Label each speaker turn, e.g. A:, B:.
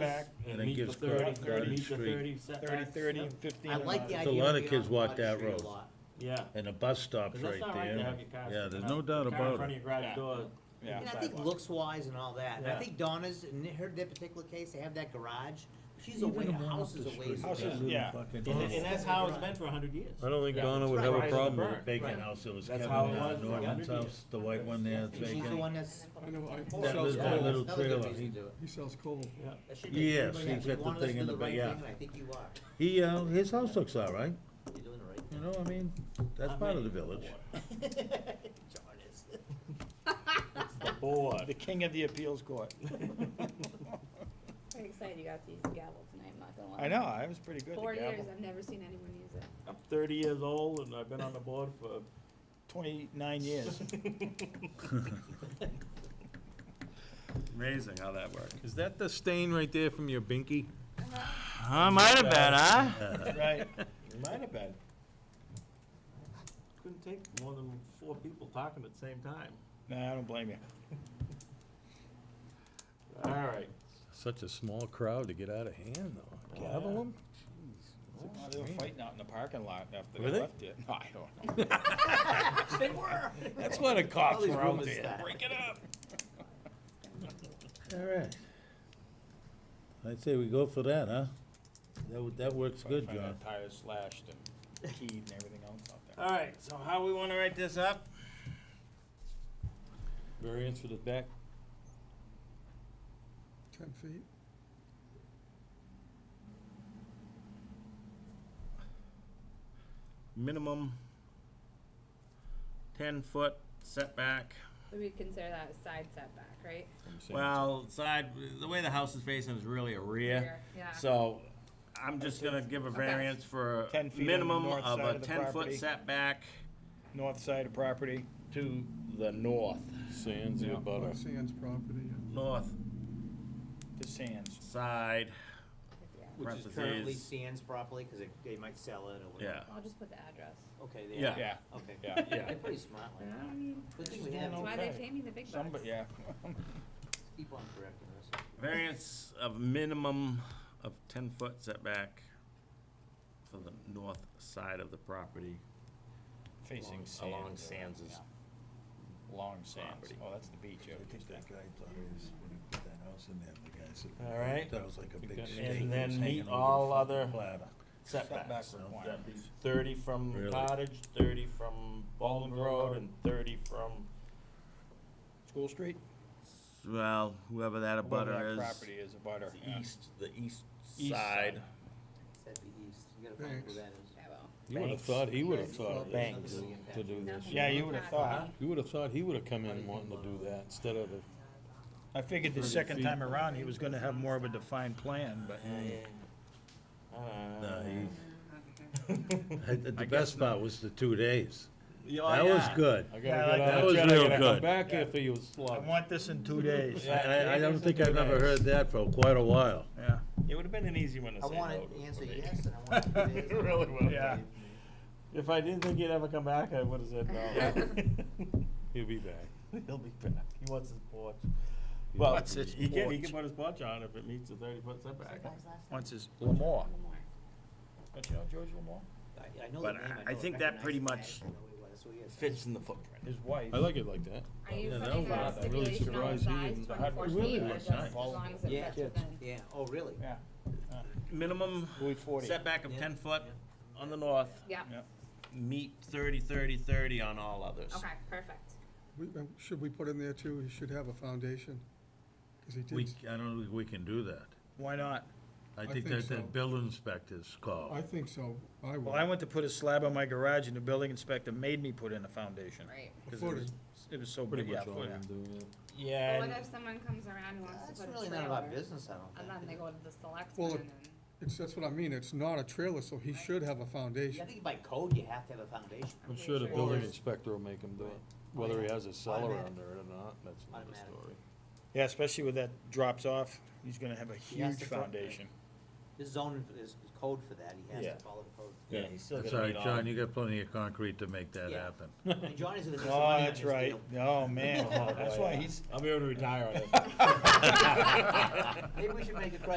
A: then
B: meet the
A: gives
B: thirty,
A: Garden
C: Garden
A: Garden
B: meet the
A: Street.
B: thirty
C: Thirty,
B: setbacks.
C: thirty,
B: Yep.
C: and fifteen.
D: I like the
A: There's
D: idea.
A: a
D: of
A: lot of
D: being
A: kids
D: on
A: walk
D: Broad
A: that
D: Street a
A: road.
D: lot.
B: Yeah.
A: And the bus stops
B: Cause that's
A: right
B: not right to
A: there.
B: have your cars.
A: Yeah,
B: sticking
A: there's
B: out-
A: no doubt
B: car in
A: about
B: front of
A: it.
B: your garage
C: Yeah.
B: door.
C: Yeah.
D: And I think
C: Sidewalk.
D: looks wise and all that, and I
B: Yeah.
D: think Donna's, in her that particular case, they have that garage, she's
A: Even
D: away,
A: the one
D: her
A: up
D: house
A: the
D: is away.
A: street.
C: Houses, yeah.
B: And, tha- and that's how it's been for a hundred years.
A: I don't think
B: Yeah.
A: Donna would
D: Right,
A: have a
B: right,
A: problem
B: it's
A: with a
B: burnt,
A: vacant
D: right.
A: house that was
B: That's
A: Kevin
B: how it
A: uh,
B: was for
A: Norton's
B: 100 years.
A: house, the white one there, that's
D: And she's the
A: vacant.
D: one that's.
E: I know, I
A: That
E: also,
A: little- that little
D: Another good
A: trailer.
D: reason to do it.
E: he sells coal.
B: Yeah.
D: That should be-
A: Yes,
D: If
A: he's
D: you
A: got the
D: want us to
A: thing in
D: do
A: the, ba-
D: right
A: yeah.
D: thing, and I think you are,
A: He, uh, his house looks all right,
D: you're doing the right
A: you
D: thing.
A: know, I mean, that's
B: Not
A: part
B: me.
A: of the village.
D: John is.
B: The board.
C: The king of the appeals court.
E: Pretty excited you got these gavel tonight, I'm not gonna
C: I know, I was pretty good at the
E: Four years,
C: gavel.
E: I've never seen anyone use it.
B: I'm thirty years old and I've been on the board for
C: Twenty-nine years. Amazing how that worked.
F: Is that the stain right there from your binky?
C: I might have been, huh? Right.
B: Might have been. Couldn't take more than four people talking at the same time.
C: No, I don't blame you.
B: All right.
F: Such a small crowd to get out of hand, though. Gavel 'em?
C: Oh, They were fighting out in the parking lot after
F: Were
C: they
F: they?
C: left it. No, I don't know.
D: They were.
C: That's what a cops
D: these
C: were out
D: rumors
C: there.
D: start.
C: Break it up.
A: All right. I'd say we go for that, huh? That, would- that works good,
C: Find
A: John.
C: that Tire slashed and keyed and everything else out there.
B: All right, so how we wanna write this up?
F: Variance for the back?
E: Ten feet.
B: Minimum ten-foot setback.
E: We would consider that a side setback, right?
B: Well, side, the way the house is facing is really a rear.
E: Rear, yeah.
B: So I'm just gonna give a variance for
C: 10 feet on the
B: minimum
C: north
B: of
C: side
B: a
C: of the
B: ten-foot
C: property.
B: setback
C: North side of property.
B: to the north,
F: Sands the butter.
E: Sands property.
B: north
C: to Sands.
B: side,
E: Yeah.
D: Which is currently
B: Parentheses.
D: stands properly, cause it, they might sell it or whatever.
B: yeah.
E: I'll just put the address.
D: Okay, they
B: Yeah.
D: are,
C: Yeah,
D: okay.
C: yeah,
B: yeah.
D: They're pretty smart like that. Good thing we have
E: That's
D: these
E: why they
C: Okay.
E: pay me the big bucks.
C: somebody, yeah.
D: people on correcting us.
B: Variance of minimum of ten-foot setback for the north side of the property.
C: Facing Sands.
B: Along
C: uh,
B: Sands is-
C: yeah. Long Sands.
B: property.
C: Oh, that's the beach. yeah.
B: All right.
A: That was like a big
F: that-
A: steak.
B: And then meet all other setbacks. So that'd be Thirty from
A: Really?
B: cottage, thirty from Baldwin Road, and thirty from,
C: School Street?
B: well, whoever that
C: Whoever that
B: abutter is.
C: Property is a butter.
B: The
C: yeah.
B: east, the east
C: East
B: side.
C: side.
D: That'd be east, you gotta find who that is.
E: I
F: You
E: will.
F: would've
B: Banks.
F: thought he would've thought of this,
B: Banks.
F: to do this.
C: Yeah, you would have thought.
F: You would've thought he would've come in wanting to do that instead of, the-
C: I figured the second time around, he was gonna have more of a defined plan, but
B: Uh,
A: The best part was the two days.
B: yeah,
A: That was
B: yeah.
A: good.
F: oh, I gotta
C: Yeah, I
F: get
C: like
F: out
A: that.
F: of
A: That
F: jail,
A: was
F: I
A: real
F: gotta come
A: good.
F: back here for you,
C: I
F: slug.
C: want this in two days.
A: I, I, I don't think I've ever heard that for quite a while.
C: Yeah,
B: It would've been an easy one to
D: I
B: say
D: wanted
B: no to
D: to
B: for
D: answer
B: me.
D: yes, and I wanted
B: It
D: to answer.
B: really would've.
C: yeah.
B: If I didn't think he'd ever come back, I would've said no.
F: He'll be back.
B: He'll be back. He wants his porch. Well,
C: wants his
B: he can, he
C: porch.
B: can put his porch on if it meets the thirty foot setback.
C: Once is Lamore.
E: One more.
C: Don't you know George Lamore?
D: I- I know the
B: But
D: name,
B: I-
D: know
B: I
D: it,
B: think that pretty
D: recognize
B: much
D: it, I know who he was, so he is.
B: Fits in the footprint.
C: His wife.
F: I like it like that.
E: Are you
A: Yeah, that
E: putting
A: was
E: a
A: odd. That really
E: stipulation on the
F: surprised me
E: size,
F: and I
E: twenty-four
F: really
E: feet, or
F: was
E: just
F: nice.
E: as long as it
D: Yeah.
E: fits within?
D: Yeah, oh, really?
C: Yeah,
B: Minimum
C: Louis forty.
B: setback of
D: Yeah.
B: ten foot on the north,
E: Yeah,
B: meet thirty, thirty, thirty on all others.
E: okay, perfect.
G: We- uh, Should we put in there too, he should have a foundation? 'Cause he
A: We,
G: did,
A: I don't think we can do that.
C: Why not?
A: I
G: I
A: think
G: think
A: that,
G: so.
A: that building inspector's
G: I
A: call.
G: think so, I would.
C: Well, I went to put a slab on my garage and the building inspector made me put in a foundation.
E: Right.
C: Cause it was, it was so
F: Pretty
C: big, yeah,
F: much all
C: footing.
F: I'm doing, yeah.
B: Yeah,
E: But what
B: and
E: if someone comes around and wants
D: That's
E: to put
D: really
E: a
D: none of our
E: trailer,
D: business, I don't
E: and
D: think.
E: then they go to the
G: Well,
E: selectmen
G: it-
E: and,
G: It's, that's what I mean, it's not a trailer, so he should have a
D: Yeah, I
G: foundation.
D: think by code, you have to have a foundation.
F: I'm sure the
E: sure.
F: building
D: Or-
F: inspector will make him do it, whether he has a cellar
D: Automatic.
F: under it or not, that's another
D: Automatic.
F: story.
C: Yeah, especially with that drops off, he's gonna have a
D: He has
C: huge
D: to front-
C: foundation.
D: There's zoning, for- there's there's code for that, he has
B: Yeah.
D: to follow the code.
B: Yeah, he's still
A: That's all
B: gonna need
A: right,
B: all.
A: John, you got plenty of concrete to make that
D: Yeah.
A: happen.
D: And Johnny's gonna do some
C: Oh,
D: money on
C: that's
D: this
C: right.
D: deal.
C: Oh, man. That's why he's,
B: I'll be able to retire on it.
D: Maybe we should make a